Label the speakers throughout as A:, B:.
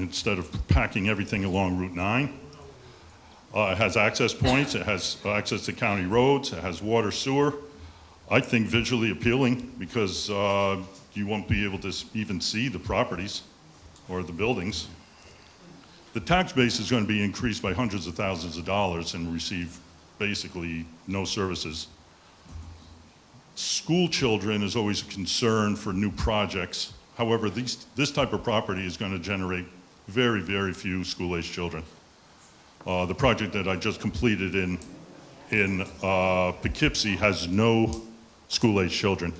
A: instead of packing everything along Route 9. Uh, It has access points, it has access to county roads, it has water sewer. I think visually appealing because uh, you won't be able to s- even see the properties or the buildings. The tax base is going to be increased by hundreds of thousands of dollars and receive basically no services. School children is always a concern for new projects. However, these, this type of property is going to generate very, very few school-aged children. Uh, The project that I just completed in, in uh, Poughkeepsie has no school-aged children.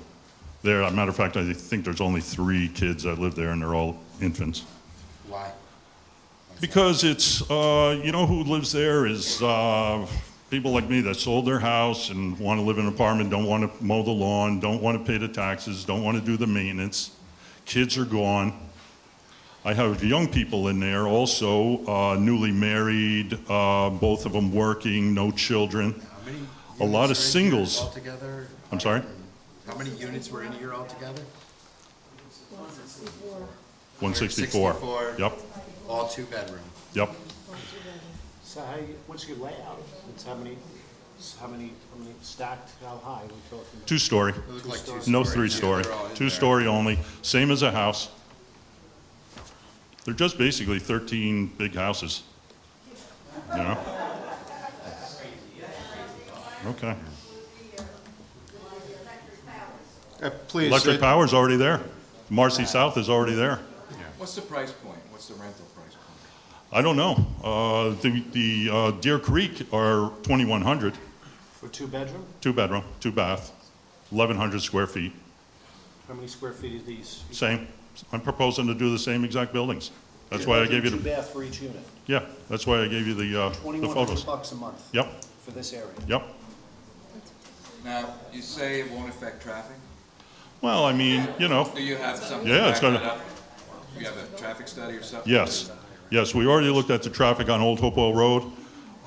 A: There, as a matter of fact, I think there's only three kids that live there, and they're all infants.
B: Why?
A: Because it's, uh, you know who lives there is uh, people like me that sold their house and want to live in an apartment, don't want to mow the lawn, don't want to pay the taxes, don't want to do the maintenance. Kids are gone. I have young people in there also, uh, newly married, uh, both of them working, no children.
B: How many?
A: A lot of
B: units were in here
A: singles.
B: Altogether?
A: I'm sorry?
B: How many units were in here altogether?
A: 164.
B: 164.
A: Yep,
B: All two-bedroom.
A: yep.
C: So how, you- what's your layout? It's how many, it's how many, how many stacked, how high are we talking about?
A: Two-story,
B: It looked like two-story.
A: no
B: Yeah,
A: three-story.
B: they're all in there.
A: Two-story only, same as a house. They're just basically 13 big houses, you know? Okay.
B: Uh, Please.
A: Electric
B: it-
A: power's already there. Marcy South is already there.
D: What's the price point? What's the rental price point?
A: I don't know. Uh, The the, uh, Deer Creek are 2,100,
C: For two bedroom?
A: two-bedroom, two-bath, 1,100 square feet,
C: How many square feet are these?
A: same. I'm proposing to do the same exact buildings. That's why I gave you
C: Two
A: the,
C: bath for each unit,
A: yeah, that's why I gave you the uh, the
C: twenty-one
A: photos.
C: hundred bucks a month
A: Yep,
C: for this area.
A: yep.
D: Now, you say it won't affect traffic?
A: Well, I mean, you know,
D: Do you have something
A: Yeah,
D: to
A: it's
D: back that
A: gonna-
D: up? You have a traffic study or something?
A: yes, yes, we already looked at the traffic on Old Hopewell Road,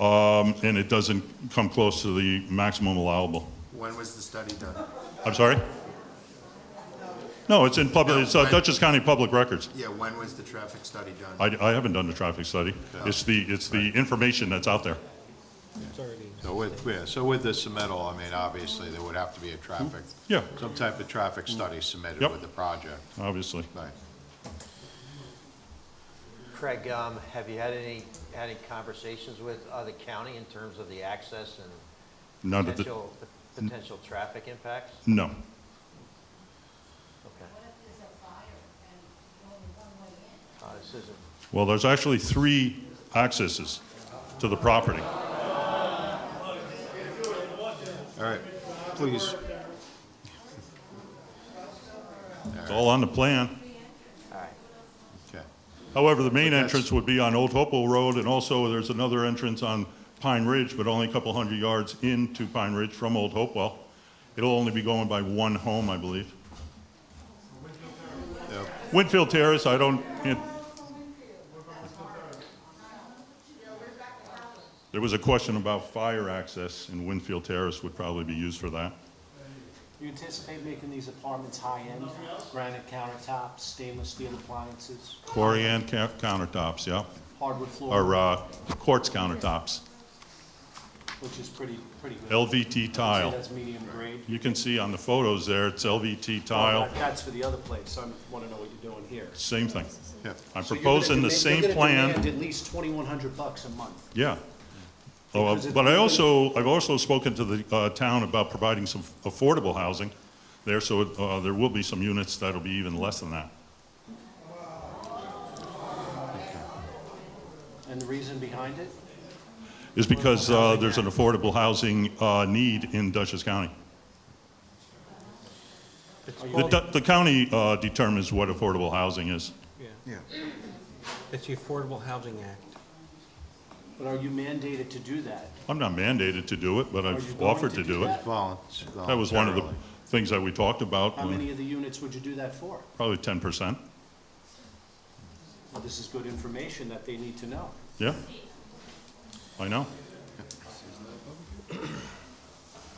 A: um, and it doesn't come close to the maximum allowable.
B: When was the study done?
A: I'm sorry? No, it's in public,
B: No,
A: it's uh,
B: I-
A: Dutchess County Public Records.
B: Yeah, when was the traffic study done?
A: I, I haven't done the traffic study. It's the, it's the information that's out there.
E: So with, yeah, so with the submittal, I mean, obviously, there would have to be a traffic,
A: Yeah,
E: some type of traffic study submitted
A: Yep.
E: with the project,
A: obviously.
E: right?
F: Craig, um, have you had any, had any conversations with other county in terms of the access and
A: None of the,
F: potential, potential traffic impacts?
A: no.
F: Okay. Uh, this isn't,
A: Well, there's actually three accesses to the property.
E: All right, please,
A: It's all on the plan.
F: all right.
E: okay.
A: However, the main
E: that's-
A: entrance would be on Old Hopewell Road, and also there's another entrance on Pine Ridge, but only a couple hundred yards into Pine Ridge from Old Hopewell. It'll only be going by one home, I believe. Winfield Terrace, I don't, it- there was a question about fire access, and Winfield Terrace would probably be used for that.
C: You anticipate making these apartments high-end, granite countertops, stainless steel appliances,
A: Quarry and ca- countertops, yeah,
C: hardwood floor,
A: or uh, quartz countertops,
C: which is pretty, pretty good.
A: LVT
C: I'd say
A: tile.
C: That's medium grade.
A: You can see on the photos there, it's LVT
C: Well,
A: tile,
C: that- That's for the other place, I wanna know what you're doing here.
A: same thing.
E: Yeah.
A: I'm
C: So you're gonna
A: proposing the
C: demand-
A: same
C: you're gonna
A: plan,
C: demand at least twenty-one hundred bucks a month.
A: yeah. Oh,
C: Because it-
A: But I also, I've also spoken to the uh, town about providing some affordable housing there, so uh, there will be some units that'll be even less than that.
C: And the reason behind it?
A: Is because uh, there's an affordable housing uh, need in Dutchess County.
G: It's
A: The
G: called,
A: du- the county uh, determines what affordable housing is.
G: yeah. It's the Affordable Housing Act.
C: But are you mandated to do that?
A: I'm not mandated to do it, but
C: Are you
A: I've
C: going
A: offered
C: to
A: to
C: do
A: do it.
C: that?
E: Volunteer.
A: That was one of the things that we talked about,
C: How many of the units would you do that for?
A: probably 10%.
C: Well, This is good information that they need to know.
A: Yeah? I know.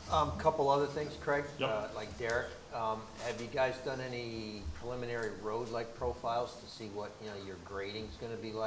F: Um, couple other things, Craig.
A: Yep.
F: uh, Like Derek, um, have you guys done any preliminary road-like profiles to see what, you know, your grading's gonna be like?